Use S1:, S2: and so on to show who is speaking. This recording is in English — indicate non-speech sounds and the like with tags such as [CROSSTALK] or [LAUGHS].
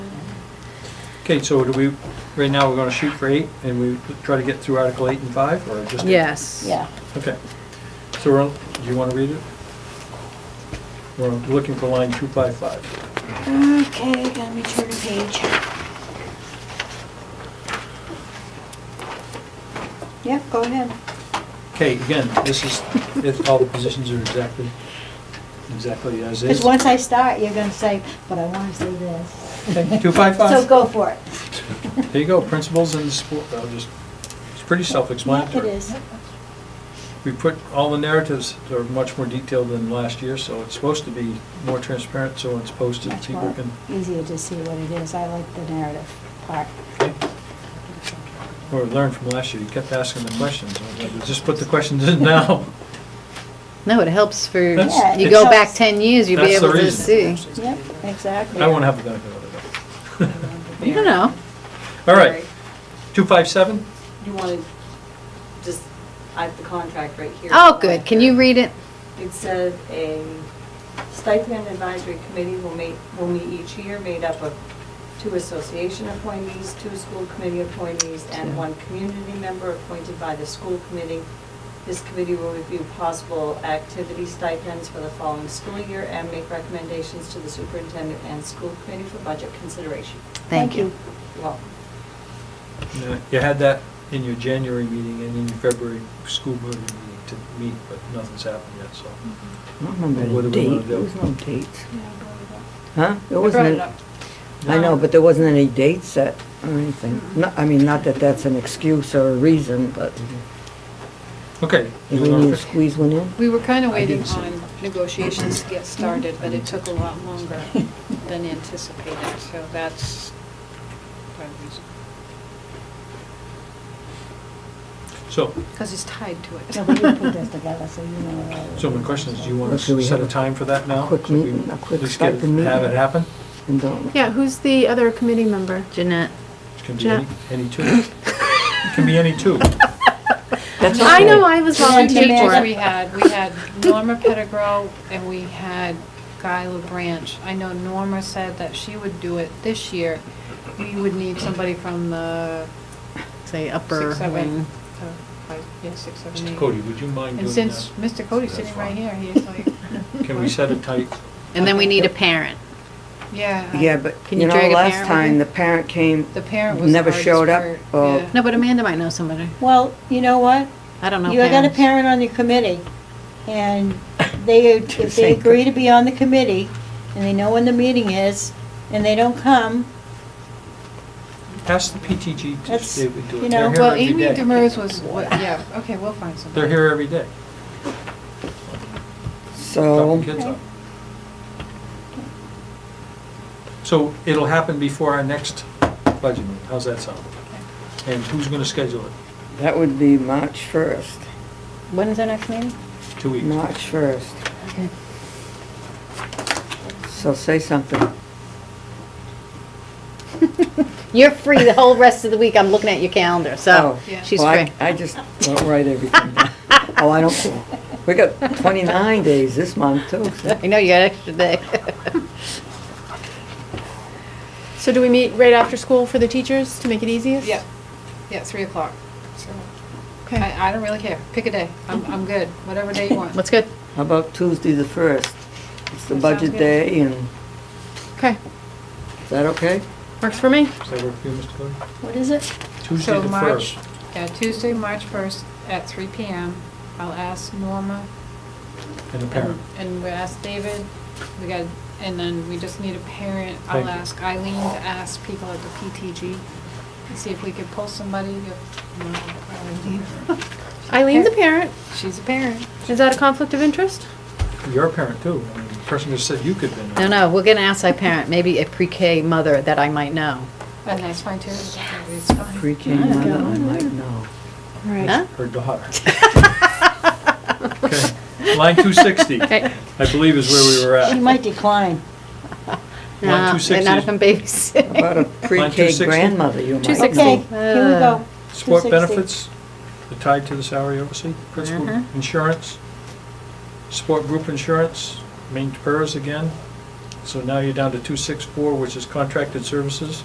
S1: Okay, so do we, right now, we're gonna shoot for eight, and we try to get through Article eight and five, or just? eight?
S2: Yes.
S3: Yeah.
S1: Okay. So, we're on- do you wanna read it? We're looking for line two five five.
S3: Okay, gotta be turning page. Yep, go ahead.
S1: Okay, again, this is, if all the positions are exactly, exactly as is.
S3: Because once I start, you're gonna say, but I wanna say this.
S1: Two five
S3: So
S1: five.
S3: go for it.
S1: There you go, principals and sport, I'll just, it's pretty
S3: It
S1: self-explanatory.
S3: is.
S1: We put, all the narratives are much more detailed than last year, so it's supposed to be more transparent, so when it's posted,
S3: Much
S1: people
S3: more
S1: can.
S3: easier to see what it is. I like the narrative part.
S1: Or learn from last year, you kept asking the questions, I'm like, just put the questions in now.
S2: No, it helps for,
S1: That's-
S2: you go
S3: it
S2: back
S3: helps.
S2: 10 years, you'll be
S1: That's the
S2: able to see.
S1: reason.
S3: Yep, exactly.
S1: I won't
S3: [LAUGHS]
S1: have the benefit of it.
S2: You don't know.
S1: All right, two five seven?
S4: You want to just, I have the contract right here.
S2: Oh, good. Can you read it?
S4: It says a stipend advisory committee will meet, will meet each year, made up of two association appointees, two school committee appointees, and one community member appointed by the school committee. This committee will review possible activity stipends for the following school year and make recommendations to the superintendent and school committee for budget consideration.
S2: Thank you.
S4: Well,
S1: No, Uh, You had that in your January meeting and in your February school board meeting to meet, but nothing's happened yet, so.
S5: I don't remember
S1: What do
S5: the
S1: we wanna
S5: date, there
S1: do?
S5: was no dates,
S4: yeah, I brought it up.
S5: huh? There
S4: I brought
S5: wasn't
S4: it
S5: a-
S4: up.
S5: I know, but there wasn't any date set or anything. No, I mean, not that that's an excuse or a reason, but
S1: Mm-hmm. Okay.
S5: we
S1: you wanna
S5: need to
S1: pick-
S5: squeeze one in.
S6: We were kind of waiting
S1: didn't see
S6: on negotiations to get started, but it took a lot
S3: [LAUGHS]
S6: longer than anticipated, so that's the reason.
S1: So,
S6: Because it's tied to
S3: Yeah, but [LAUGHS] you
S6: it.
S3: put this together, so you know. what all it
S1: so my question is, do you want
S5: Should
S1: to
S5: we
S1: set a
S5: have a
S1: time for that now?
S5: quick
S1: So we
S5: meeting, a quick
S1: at least get it-
S5: stipend meeting?
S1: Have it happen?
S5: And don't,
S7: Yeah, who's the other committee member?
S2: Jeanette.
S1: It can be
S7: Yeah.
S1: any, any two. It can be any two.
S5: that's okay.
S7: I know, I was volunteering for
S6: Teachers we
S7: it.
S6: had, we had Norma Pettigrew and we had Guy LaBranch. I know Norma said that she would do it this year. We would need somebody from the
S2: Say upper
S6: six,
S2: wing.
S6: seven, uh, five, yeah, six, seven, eight.
S1: Cody, would you mind
S6: And
S1: doing
S6: since
S1: that?
S6: Mr. Cody's sitting right here, he's like,
S1: [LAUGHS] Can we set a tight,
S2: And then we need a parent.
S6: yeah. I-
S5: Yeah, but,
S2: Can
S5: you
S2: you
S5: know,
S2: drag a
S5: last
S2: parent with
S5: time,
S2: you?
S5: the parent came,
S6: The parent was the
S5: never
S6: hardest
S5: showed up.
S6: part,
S5: or-
S6: yeah.
S2: No, but Amanda might know somebody.
S3: is. Well, you know what?
S2: I don't know
S3: You got a
S2: parents.
S3: parent on your committee, and they, if they agree to be on the committee, and they know when the meeting is, and they don't come,
S1: ask the PTG to
S3: That's-
S1: see if we do
S3: you
S1: it.
S3: know-
S1: They're here
S6: Well,
S1: every
S6: Amy
S1: day.
S6: Demers was, what- yeah, okay, we'll find somebody.
S1: They're here every day.
S5: so,
S1: Talking kids
S3: Okay.
S1: up. So it'll happen before our next budget meeting, how's that sound? And who's gonna schedule it?
S5: that would be March 1st,
S2: When is our next meeting? [LAUGHS]
S1: Two weeks?
S5: March 1st. So say something.
S2: You're free the whole rest of the week. I'm looking at your calendar, so
S5: Oh,
S6: Yeah.
S2: she's
S5: well, I-
S2: free.
S5: I just don't write everything down. Oh, I don't, care. we got 29 days this month, too. so-
S2: [LAUGHS] I know you got an extra day.
S7: So do we meet right after school for the teachers to make it easiest?
S6: Yeah, yeah, three o'clock. So
S7: Okay.
S6: I, I don't really care, pick a day, I'm, I'm good, whatever day you want.
S2: What's good?
S5: How about Tuesday the 1st? It's the
S6: That sounds
S5: budget
S6: good.
S5: day, and,
S7: Okay,
S5: is that okay?
S7: works for me.
S1: Does that work for you, Mr. Cody?
S3: what is it?
S1: Tuesday
S6: So
S1: the
S6: March-
S1: first.
S6: Yeah, Tuesday, March first at three P M. I'll ask Norma
S1: And a
S6: and,
S1: parent.
S6: and we'll ask David, we got, and then we just need a parent.
S1: Thank
S6: I'll
S1: you.
S6: ask Eileen to ask people at the PTG and see if we could pull somebody if, no, Eileen.
S2: [LAUGHS]
S7: Eileen's a parent.
S6: She's [LAUGHS] a parent.
S7: Is that a conflict of interest?
S1: You're a parent too, I mean, the person who said you could've been.
S2: No, no, we're gonna ask our parent, maybe a pre-K mother that I might know.
S6: And that's fine too. It's fine.
S5: Pre-K mother, I might know.
S2: Huh?
S1: Her daughter. Okay. Line two sixty, I
S7: Okay.
S1: believe is where we were
S3: She
S1: at.
S3: might decline.
S2: No, [LAUGHS] they're
S1: 260.
S2: not if I'm babysitting.
S5: How
S2: [LAUGHS]
S5: About a pre-K
S1: 260?
S5: grandmother, you might know.
S7: 260.
S3: Okay, here we go.
S1: Sport
S3: 260.
S1: benefits, they're tied to the salary oversee, principal
S2: Uh-huh.
S1: insurance, sport group insurance, main PERS again. So now you're down to two six four, which is contracted services.